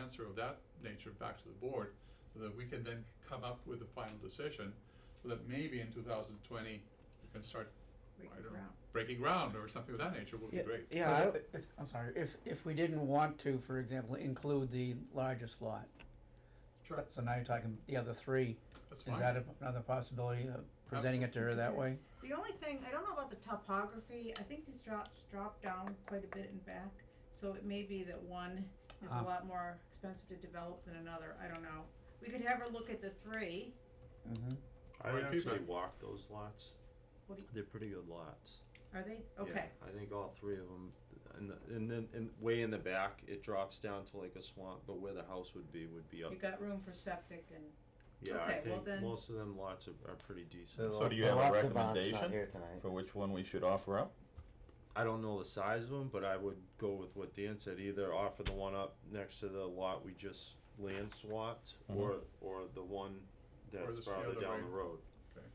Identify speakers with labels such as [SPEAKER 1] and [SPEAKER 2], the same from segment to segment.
[SPEAKER 1] answer of that nature back to the board, so that we can then come up with a final decision, so that maybe in two thousand twenty, we can start, I
[SPEAKER 2] breaking
[SPEAKER 1] don't know,
[SPEAKER 2] ground.
[SPEAKER 1] breaking ground or something of that nature would be
[SPEAKER 3] Yeah,
[SPEAKER 1] great.
[SPEAKER 3] Yeah, I-
[SPEAKER 4] But if, I'm sorry, if, if we didn't want to, for example, include the largest lot,
[SPEAKER 1] Sure,
[SPEAKER 4] so now you're talking the other three,
[SPEAKER 1] that's
[SPEAKER 4] is
[SPEAKER 1] fine.
[SPEAKER 4] that a- another possibility of presenting it to her that way?
[SPEAKER 2] The only thing, I don't know about the topography, I think these drops drop down quite a bit and back, so it may be that one is a
[SPEAKER 4] Ah.
[SPEAKER 2] lot more expensive to develop than another, I don't know. We could have her look at the three,
[SPEAKER 3] Mm-hmm.
[SPEAKER 1] Or
[SPEAKER 5] I
[SPEAKER 1] in
[SPEAKER 5] actually
[SPEAKER 1] feedback.
[SPEAKER 5] walked those lots.
[SPEAKER 2] What do you-
[SPEAKER 5] They're pretty good lots.
[SPEAKER 2] are they?
[SPEAKER 5] Yeah,
[SPEAKER 2] Okay,
[SPEAKER 5] I think all three of them, and the, and then, and way in the back, it drops down to like a swamp, but where the house would be, would be up.
[SPEAKER 2] you got room for septic and,
[SPEAKER 5] Yeah, I
[SPEAKER 2] okay, well
[SPEAKER 5] think
[SPEAKER 2] then-
[SPEAKER 5] most of them lots are, are pretty decent.
[SPEAKER 6] So do you have a recommendation for which one we should offer up?
[SPEAKER 5] I don't know the size of them, but I would go with what Dan said, either offer the one up next to the lot we just land swapped,
[SPEAKER 6] Mhm.
[SPEAKER 5] or, or the one that's
[SPEAKER 1] just the
[SPEAKER 5] farther
[SPEAKER 1] other
[SPEAKER 5] down
[SPEAKER 1] way.
[SPEAKER 5] the road.
[SPEAKER 1] Okay.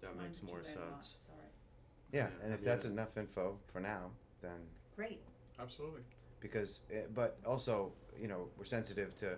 [SPEAKER 5] That
[SPEAKER 2] mine's
[SPEAKER 5] makes
[SPEAKER 2] too
[SPEAKER 5] more
[SPEAKER 2] big a lot,
[SPEAKER 5] sense.
[SPEAKER 2] sorry.
[SPEAKER 3] Yeah,
[SPEAKER 5] Yeah,
[SPEAKER 3] and
[SPEAKER 5] I
[SPEAKER 3] if
[SPEAKER 5] mean,
[SPEAKER 3] that's
[SPEAKER 5] it-
[SPEAKER 3] enough info for now, then
[SPEAKER 2] Great,
[SPEAKER 1] Absolutely,
[SPEAKER 3] because it, but also you know we're sensitive to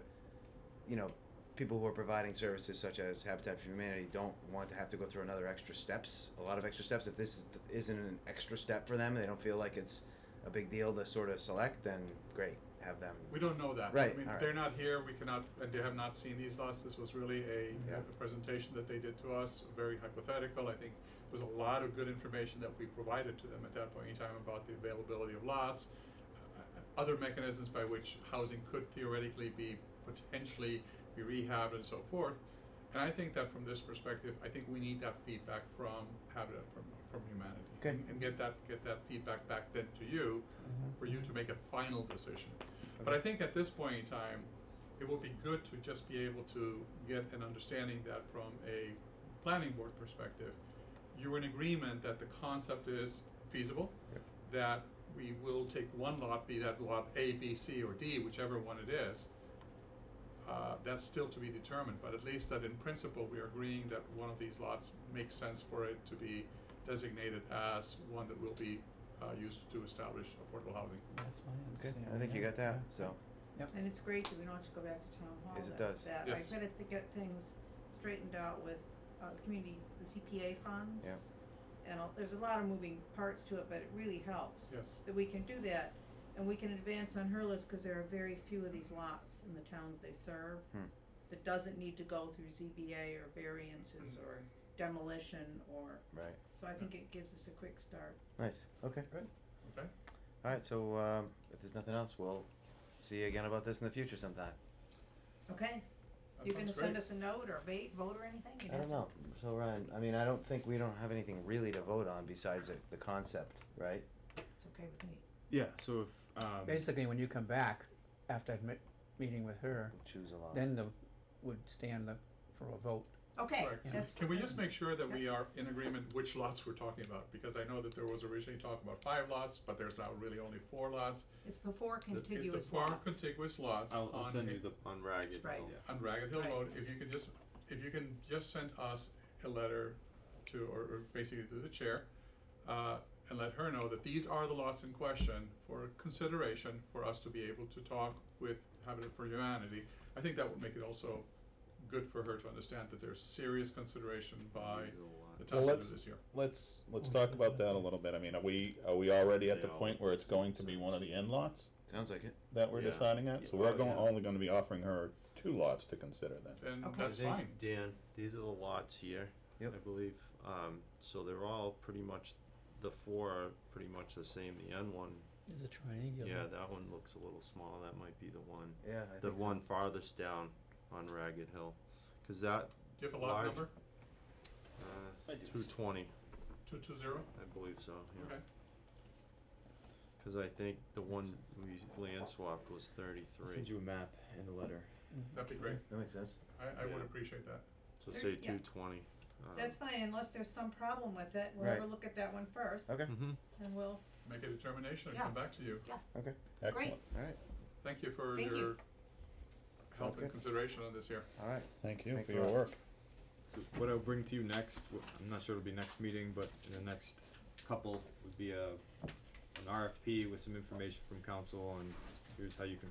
[SPEAKER 3] you know people who are providing services such as Habitat for Humanity don't want to have to go through another extra steps, a lot of extra steps. If this is, isn't an extra step for them, they don't feel like it's a big deal to sort of select. Then great, have them.
[SPEAKER 1] we don't know that. I
[SPEAKER 3] Right,
[SPEAKER 1] mean,
[SPEAKER 3] all right.
[SPEAKER 1] they're not here, we cannot, and they have not seen these lots, this was really a,
[SPEAKER 3] Yeah.
[SPEAKER 1] a presentation that they did to us, very hypothetical, I think there was a lot of good information that we provided to them at that point in time about the availability of lots, uh, other mechanisms by which housing could theoretically be potentially be rehabbed and so forth. And I think that from this perspective, I think we need that feedback from Habitat from from humanity.
[SPEAKER 3] Okay.
[SPEAKER 1] And- And get that get that feedback back then to you
[SPEAKER 4] Mm-hmm.
[SPEAKER 1] for you to make a final decision. But I think at this point in time, it will be good to just be able to get an understanding that from a planning board perspective, you're in agreement that the concept is feasible, that we will take one lot, be that lot A, B, C, or D, whichever one it is. Uh, that's still to be determined, but at least that in principle, we are agreeing that one of these lots makes sense for it to be designated as one that will be uh, used to establish affordable housing.
[SPEAKER 4] That's my
[SPEAKER 3] Okay,
[SPEAKER 4] understanding.
[SPEAKER 3] I think you
[SPEAKER 4] yeah,
[SPEAKER 3] got that.
[SPEAKER 4] yeah.
[SPEAKER 3] So
[SPEAKER 2] and it's great that we don't have to go back to town hall.
[SPEAKER 3] Yes, it
[SPEAKER 2] that-
[SPEAKER 3] does.
[SPEAKER 2] That, I
[SPEAKER 1] Yes.
[SPEAKER 2] gotta th- get things straightened out with, uh, the community, the CPA funds.
[SPEAKER 3] Yeah.
[SPEAKER 2] And all- there's a lot of moving parts to it, but it really helps.
[SPEAKER 1] Yes.
[SPEAKER 2] that we can do that, and we can advance on her list, cause there are very few of these lots in the towns they serve.
[SPEAKER 3] Hmm.
[SPEAKER 2] That doesn't need to go through ZBA or variances or demolition or,
[SPEAKER 3] right,
[SPEAKER 2] so I think it gives us a quick start.
[SPEAKER 3] nice. Okay, good.
[SPEAKER 1] Okay.
[SPEAKER 3] All right. So um, if there's nothing else, we'll see you again about this in the future sometime.
[SPEAKER 2] Okay,
[SPEAKER 1] That
[SPEAKER 2] you gonna
[SPEAKER 1] sounds
[SPEAKER 2] send
[SPEAKER 1] great.
[SPEAKER 2] us a note or vote, vote or anything? You'd
[SPEAKER 3] I
[SPEAKER 2] have
[SPEAKER 3] don't
[SPEAKER 2] to-
[SPEAKER 3] know. So Ryan, I mean, I don't think we don't have anything really to vote on besides the, the concept, right?
[SPEAKER 2] It's okay with me.
[SPEAKER 7] Yeah, so if, um,
[SPEAKER 4] Basically, when you come back after that mi- meeting with her,
[SPEAKER 3] We'll choose a lot.
[SPEAKER 4] then the, would stand the, for a vote.
[SPEAKER 2] Okay,
[SPEAKER 1] Correct.
[SPEAKER 2] that's.
[SPEAKER 1] Can we just make sure that we are in agreement which lots we're talking about? Because I know that there was originally talk about five lots, but there's now really only four lots.
[SPEAKER 2] It's the four
[SPEAKER 1] That-
[SPEAKER 2] contiguous
[SPEAKER 1] It's
[SPEAKER 2] lots.
[SPEAKER 1] the four contiguous lots
[SPEAKER 5] I'll, I'll
[SPEAKER 1] on
[SPEAKER 5] send
[SPEAKER 1] a-
[SPEAKER 5] you the, on Ragged
[SPEAKER 2] Right.
[SPEAKER 5] Hill.
[SPEAKER 1] on Ragged Hill
[SPEAKER 2] Right.
[SPEAKER 1] Road, if you could just, if you can just send us a letter to, or, or basically to the chair, uh, and let her know that these are the lots in question for consideration for us to be able to talk with Habitat for Humanity. I think that would make it also good for her to understand that there's serious consideration by
[SPEAKER 5] These
[SPEAKER 1] the
[SPEAKER 5] are the lots.
[SPEAKER 1] town to
[SPEAKER 6] Well,
[SPEAKER 1] do
[SPEAKER 6] let's-
[SPEAKER 1] this year.
[SPEAKER 6] Let's, let's talk about that a little bit. I mean, are we, are we already at the
[SPEAKER 5] Yeah.
[SPEAKER 6] point where it's going to be one of the end lots
[SPEAKER 3] Sounds like it.
[SPEAKER 6] that we're
[SPEAKER 5] Yeah.
[SPEAKER 6] deciding at? So
[SPEAKER 5] Yeah.
[SPEAKER 6] we're
[SPEAKER 5] Oh,
[SPEAKER 6] going,
[SPEAKER 5] yeah.
[SPEAKER 6] only gonna be offering her two lots to consider then.
[SPEAKER 1] And
[SPEAKER 2] Okay.
[SPEAKER 1] that's
[SPEAKER 5] I think,
[SPEAKER 1] fine.
[SPEAKER 5] Dan, these are the lots here,
[SPEAKER 3] Yep.
[SPEAKER 5] I believe. Um, so they're all pretty much, the four are pretty much the same. The N one,
[SPEAKER 4] Is it triangular?
[SPEAKER 5] yeah, that one looks a little small. That might be the one.
[SPEAKER 3] Yeah, I
[SPEAKER 5] The
[SPEAKER 3] think so.
[SPEAKER 5] one farthest down on Ragged Hill. Cause that,
[SPEAKER 1] Do you have a lot
[SPEAKER 5] Large.
[SPEAKER 1] number?
[SPEAKER 5] uh, two twenty,
[SPEAKER 1] Two two zero?
[SPEAKER 5] I believe so, yeah.
[SPEAKER 1] Okay.
[SPEAKER 5] Cause I think the one we land swapped was
[SPEAKER 7] I'll
[SPEAKER 5] thirty-three.
[SPEAKER 7] send you a map and a letter.
[SPEAKER 1] That'd be great.
[SPEAKER 3] That makes sense.
[SPEAKER 1] I, I would
[SPEAKER 5] Yeah.
[SPEAKER 1] appreciate that.
[SPEAKER 5] So
[SPEAKER 2] There-
[SPEAKER 5] say
[SPEAKER 2] yeah.
[SPEAKER 5] two twenty. uh,
[SPEAKER 2] That's fine, unless there's some problem with it, we'll
[SPEAKER 3] Right.
[SPEAKER 2] have a look at that one first,
[SPEAKER 3] Okay.
[SPEAKER 7] Hmm.
[SPEAKER 5] Mm-hmm.
[SPEAKER 2] and we'll,
[SPEAKER 1] Make a determination and
[SPEAKER 2] Yeah.
[SPEAKER 1] come back to you.
[SPEAKER 6] Excellent.
[SPEAKER 3] All right.
[SPEAKER 1] Thank you for
[SPEAKER 2] Thank you.
[SPEAKER 1] your help
[SPEAKER 3] Sounds
[SPEAKER 1] and
[SPEAKER 3] good.
[SPEAKER 1] consideration on this here.
[SPEAKER 3] All right.
[SPEAKER 6] Thank you
[SPEAKER 3] Thanks
[SPEAKER 6] for
[SPEAKER 3] a
[SPEAKER 6] your
[SPEAKER 3] lot.
[SPEAKER 6] work.
[SPEAKER 7] So what I'll bring to you next, wh- I'm not sure it'll be next meeting, but in the next couple would be a, an RFP with some information from council on here's how you can